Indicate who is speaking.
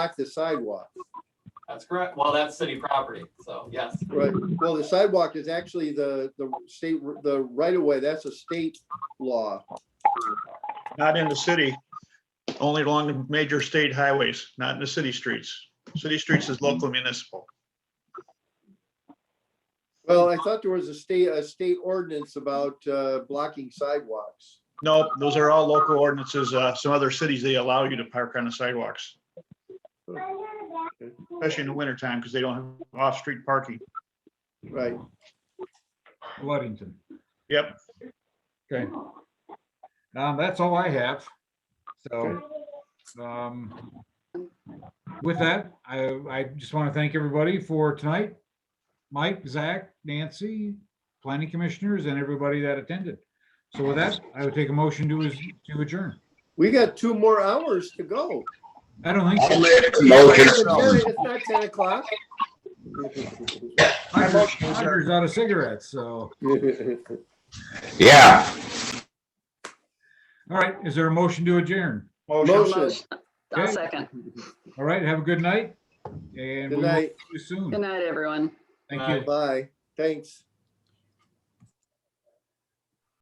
Speaker 1: block the sidewalk.
Speaker 2: That's correct. Well, that's city property, so yes.
Speaker 1: Right, well, the sidewalk is actually the, the state, the right of way, that's a state law.
Speaker 3: Not in the city, only along the major state highways, not in the city streets. City streets is local municipal.
Speaker 1: Well, I thought there was a state, a state ordinance about uh, blocking sidewalks.
Speaker 3: No, those are all local ordinances. Uh, Some other cities, they allow you to park on the sidewalks. Especially in the wintertime because they don't have off-street parking.
Speaker 1: Right,
Speaker 4: Ludington.
Speaker 3: Yep.
Speaker 4: Okay. Um, that's all I have. So, um, with that, I, I just want to thank everybody for tonight. Mike, Zach, Nancy, planning commissioners and everybody that attended. So with that, I would take a motion to, adj- to adjourn.
Speaker 1: we got two more hours to go.
Speaker 4: I don't think
Speaker 5: I'll
Speaker 4: so.
Speaker 5: make a motion.
Speaker 1: It's not ten o'clock.
Speaker 4: Roger's out of cigarettes, so.
Speaker 5: Yeah,
Speaker 4: All right, is there a motion to adjourn?
Speaker 1: Motion,
Speaker 6: I'll
Speaker 4: Okay.
Speaker 6: second.
Speaker 4: All right, have a good night. And we
Speaker 1: good
Speaker 4: will see
Speaker 1: night,
Speaker 4: you soon.
Speaker 6: Good night, everyone.
Speaker 4: Thank you.
Speaker 1: bye, thanks.